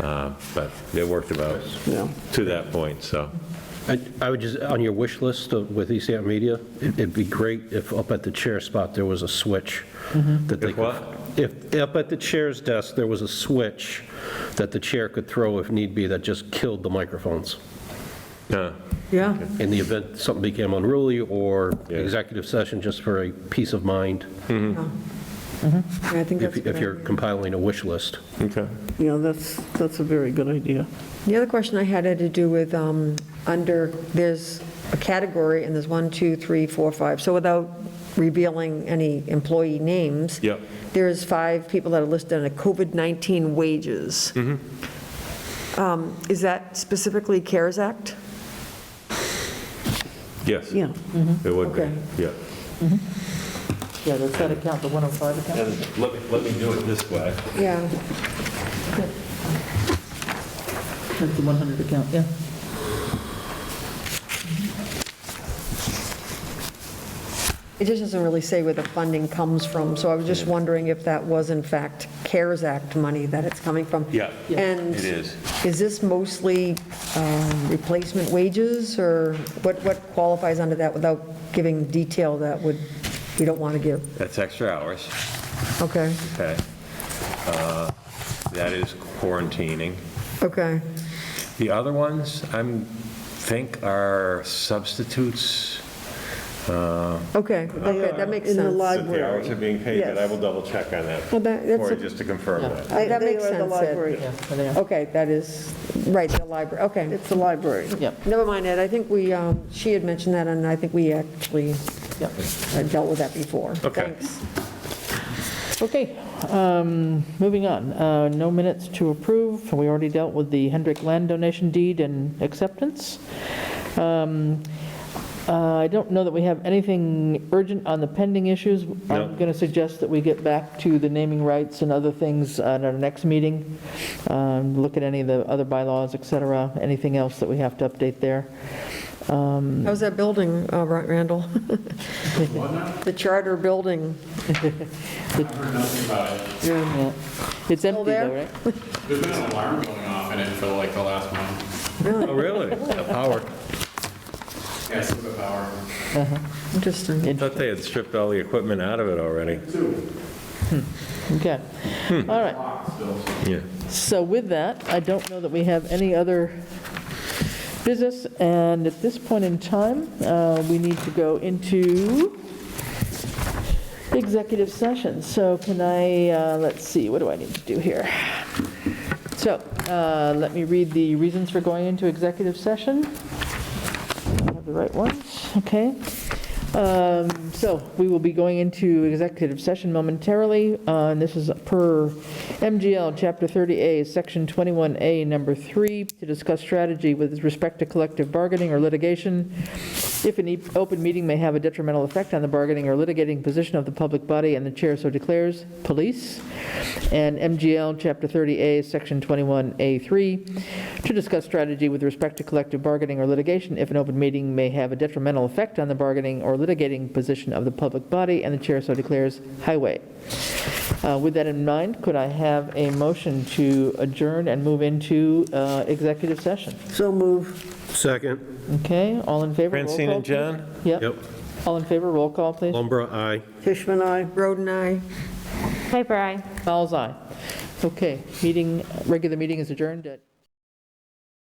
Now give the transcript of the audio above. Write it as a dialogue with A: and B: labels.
A: Uh, But it worked about
B: Yeah.
A: to that point, so.
C: I I would just, on your wish list of- with East Hampton Media, it- it'd be great if up at the chair spot, there was a switch that they
A: If
C: could...
A: what?
C: If up at the chair's desk, there was a switch that the chair could throw if need be that just killed the microphones.
A: uh,
D: Yeah,
C: In the event something became unruly or
A: Yeah.
C: executive session, just for a peace of mind,
D: Mm-hmm.
B: Mm-hmm.
D: I think
C: if
D: that's. a
C: if
D: good
C: you're
D: idea.
C: compiling a wish list.
A: Okay.
B: Yeah, that's, that's a very good idea.
D: The other question I had had to do with, um, under, there's a category, and there's one, two, three, four, five. So without revealing any employee names.
A: Yep.
D: There's five people that are listed under COVID-19 wages. Um, Is that specifically CARES Act?
A: Yes.
B: Yeah.
A: It would
D: Okay.
A: be, yeah.
E: Mm-hmm. Yeah, does that account, the 105 account?
A: Let me, let me do it this way.
D: Yeah.
E: That's the 100 account, yeah.
D: It just doesn't really say where the funding comes from, so I was just wondering if that was in fact CARES Act money that it's coming from.
A: Yeah. Yeah.
D: And
A: It is.
D: is this mostly um, replacement wages, or what what qualifies under that without giving detail that would, we don't want to give?
A: That's extra hours,
D: Okay,
A: okay? Uh, That is quarantining.
D: okay,
A: The other ones, I'm, think are substitutes.
D: okay, okay, that makes
B: uh, In the
D: sense.
B: li-
D: Well,
A: That the hours are being paid, but I will double check on that
D: Oh, that-
A: for you,
D: that's,
A: just to confirm that.
B: I-
D: That
B: they
D: makes
B: are the
D: sense, Ed.
B: library.
E: Yeah, they are.
D: okay, that is, right, the library, okay.
B: It's the library.
E: Yep,
D: Never mind, Ed, I think we, um, she had mentioned that, and I think we actually
E: yep.
D: uh, dealt with that before.
A: Okay.
D: Thanks.
E: Okay, um, moving on. Uh, No minutes to approve. We already dealt with the Hendrick land donation deed and acceptance. Um, uh, I don't know that we have anything urgent on the pending issues.
A: No.
E: I'm going to suggest that we get back to the naming rights and other things at our next meeting, Um, look at any of the other bylaws, et cetera, anything else that we have to update there.
D: How's that building, uh, Ra- Randall? The charter building.
E: Yeah. It's empty
D: there?
E: though, right?
F: There's been an alarm going off in it for like the last month.
A: Oh, really? The power.
F: Yeah, it's the power.
D: Interesting.
A: I thought they had stripped all the equipment out of it already.
E: Okay, all right.
A: Yeah.
E: So with that, I don't know that we have any other business, and at this point in time, uh, we need to go into executive session. So can I, uh, let's see, what do I need to do here? So uh, let me read the reasons for going into executive session. I have the right ones, okay. Um, So we will be going into executive session momentarily, uh, and this is per MGL Chapter 30A, Section 21A, Number 3, to discuss strategy with respect to collective bargaining or litigation. If an e- open meeting may have a detrimental effect on the bargaining or litigating position of the public body, and the chair so declares, police, and MGL Chapter 30A, Section 21A3, to discuss strategy with respect to collective bargaining or litigation if an open meeting may have a detrimental effect on the bargaining or litigating position of the public body, and the chair so declares, highway. Uh, With that in mind, could I have a motion to adjourn and move into uh, executive session?
B: So move.
C: Second,
E: Okay, all in favor? roll
A: Francine
E: call,
A: and
E: please.
A: John?
C: yep,
E: Yep, all in favor, roll call, please.
C: Lumbra, aye.
B: Fishman, I.
D: Roden, I.
G: Piper, aye.
E: Fowles, aye. Okay, meeting, regular meeting is adjourned at